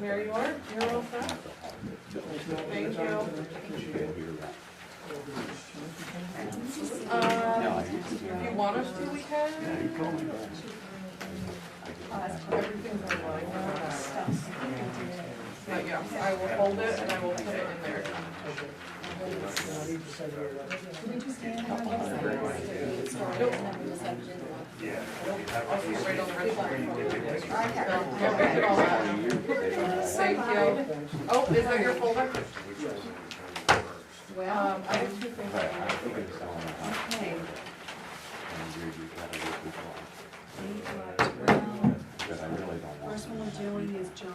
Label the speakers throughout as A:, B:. A: Here you are, you're all set. Thank you. Um, if you want us to, we can. Uh, Everything's online now. But yeah, I will hold it and I will put it in there. Nope. I'll see right on the register. No, don't get it all out. Thank you. Oh, is that your folder? Um, I have two things.
B: First one we're doing is John.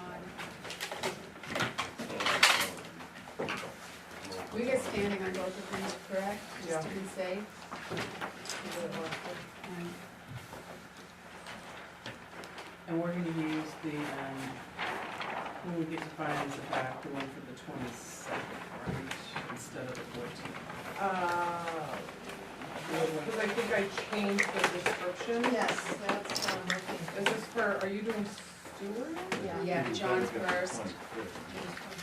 B: We get standing on both of these, correct? Just to be safe. And
C: And we're gonna use the, um, when we get to finance it back, the one for the twenty-second, right, instead of the fourteenth.
A: Uh, Because I think I changed the description.
B: Oh, Yes, that's um, what I'm looking
A: Is this for, are you doing Stewart?
B: for. Yeah, John's first.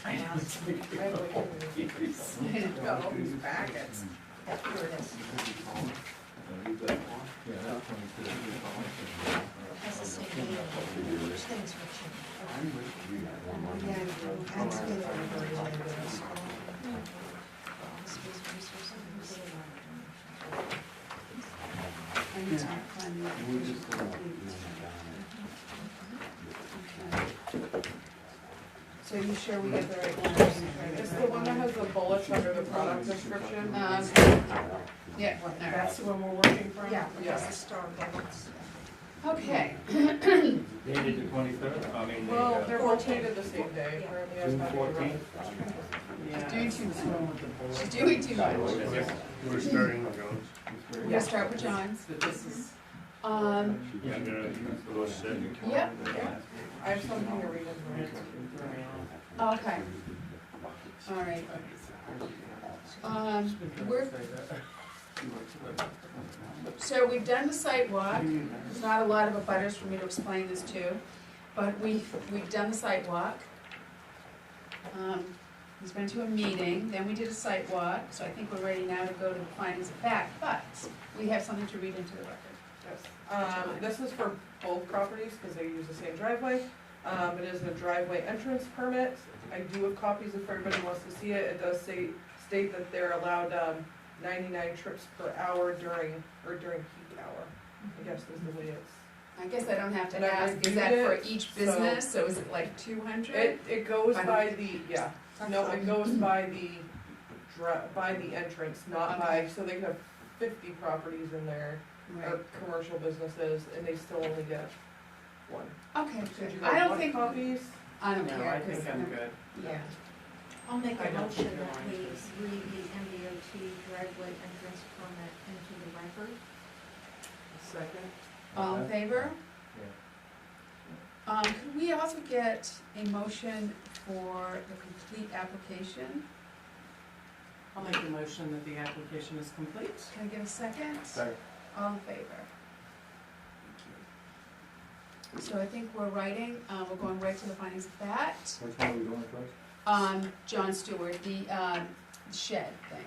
A: I have like a-
B: Got all these packets. Here it is.
D: Has a state law. Things will change. Yeah, and state law. Space resources.
B: And it's not fun, you can just complete. So you sure we get the right ones?
A: It's the one that has the bullets under the product description.
B: Um, Yeah, all right.
A: the one we're working from?
D: Yeah,
A: Yeah.
D: because the star bubbles.
B: okay.
E: Dated the twenty-third, I mean, the,
A: Well,
E: uh,
A: they're both dated the same day. apparently that's
E: June
A: not the right-
E: fourteenth.
C: Yeah.
B: doing too
C: What's wrong with the board?
B: She's doing too much.
F: We're starting with those.
B: We're gonna start with John's.
C: But this is,
B: Um,
F: Yeah, they're- those sit.
B: yep,
A: I have something to read in there.
B: okay, all right. Um, we're, so we've done the site walk. There's not a lot of abutters for me to explain this to, but we, we've done the site walk. Um, he's been to a meeting, then we did a site walk, so I think we're ready now to go to the findings of fact, but we have something to read into the record.
A: Yes. Um, this is for both properties, because they use the same driveway. Um, it is a driveway entrance permit. I do have copies if everybody wants to see it. It does say, state that they're allowed, um, ninety-nine trips per hour during, or during peak hour, I guess is the way it's.
B: I guess I don't have
A: And
B: to
A: I
B: ask, is
A: reviewed
B: that for
A: it,
B: each
A: so-
B: business, so is it like two hundred?
A: It, it goes by the, yeah, no, it goes by the dri- by the entrance, not by, so they could have fifty properties in there,
B: Right,
A: or commercial businesses, and they still only get one.
B: okay,
A: Did you
B: I
A: guys
B: don't
A: want
B: think,
A: copies?
B: I don't
C: no, I
B: care, 'cause
C: think I'm
B: I'm-
C: good.
B: yeah.
D: I'll make
C: I
D: a
C: don't
D: motion
C: think
D: that
C: they're
D: we
C: on.
D: read the MDOT driveway entrance permit into the record.
C: Second?
B: All
G: Uh-huh.
B: in favor? Um, could we also get a motion for the complete application?
C: I'll make the motion that the application is complete.
B: Can I get a second?
E: Second.
B: All in favor? Thank you. So I think we're writing, uh, we're going right to the findings of fact.
E: Which one are we going first?
B: Um, John Stewart, the, um, shed thing,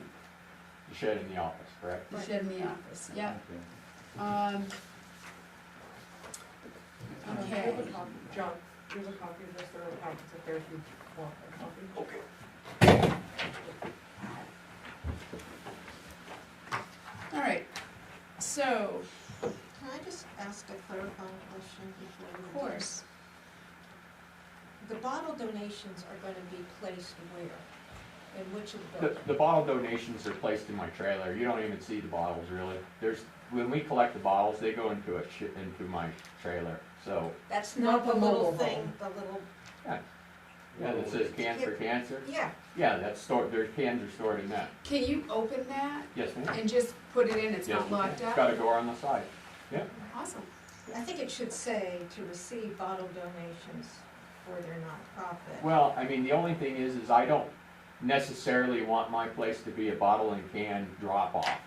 G: You shared in the office, correct?
B: the
D: Right.
B: shed in the office, yep.
G: Okay.
B: Um,
A: Um,
B: Okay.
A: here's a copy. John, here's a copy of this, there are packets up there if you want a copy. Okay.
B: all right, so,
D: Can I just ask a clarifying question before we?
B: of course,
D: The bottle donations are gonna be placed where? In which of the?
G: The, the bottle donations are placed in my trailer, you don't even see the bottles really. There's, when we collect the bottles, they go into a, shi- into my trailer, so,
D: That's
A: Not
D: not the
A: the
D: little
A: mobile
D: thing,
A: home.
D: the little,
G: yeah, that says cans for cancer.
D: yeah,
G: Yeah, that's stored, their cans are stored in that,
B: can you open that
G: yes, ma'am.
B: and just put it in, it's
G: Yes,
B: not
G: ma'am.
B: locked
G: It's
B: up?
G: got a door on the side.
B: Awesome,
D: I think it should say to receive bottle donations for their nonprofit.
G: Well, I mean, the only thing is, is I don't necessarily want my place to be a bottle and can drop off.